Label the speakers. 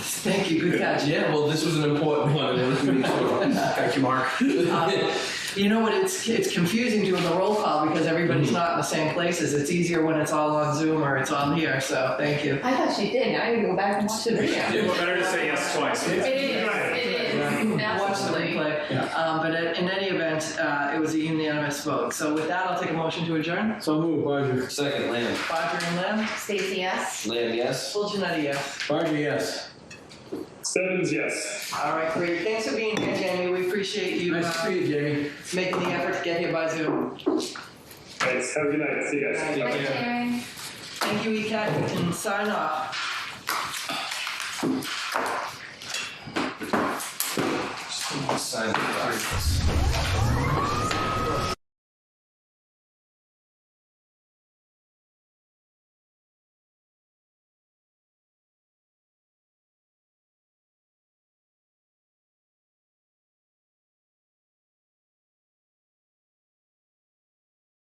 Speaker 1: Thank you. Good catch. Yeah. Well, this was an important one.
Speaker 2: Thank you, Mark.
Speaker 1: Um, you know what? It's it's confusing doing the roll call because everybody's
Speaker 3: Mm-hmm.
Speaker 1: not in the same places. It's easier when it's all on Zoom or it's on here. So thank you.
Speaker 4: I thought she did. I need to go back and watch the video.
Speaker 5: Well, better to say yes twice.
Speaker 4: It is. It is.
Speaker 1: Watch the
Speaker 4: Absolutely.
Speaker 1: replay. Um, but in, in any event, uh, it was a unanimous vote. So with that, I'll take a motion to adjourn.
Speaker 3: So move, Barger.
Speaker 2: Second, Lamb.
Speaker 1: Bodger and Lamb.
Speaker 4: Stacy, yes.
Speaker 2: Lamb, yes.
Speaker 1: Full Janetti, yes.
Speaker 3: Barger, yes.
Speaker 5: Sevens, yes.
Speaker 1: All right, great. Thanks for being here, Jamie. We appreciate you
Speaker 3: Nice to
Speaker 1: uh,
Speaker 3: see you, Jamie.
Speaker 1: making the effort to get here by Zoom.
Speaker 5: Thanks. Have a good night. See you guys.
Speaker 1: Thank
Speaker 4: Right, Jerry?
Speaker 1: Thank you, ECAT. You can sign off.
Speaker 2: Sign the documents.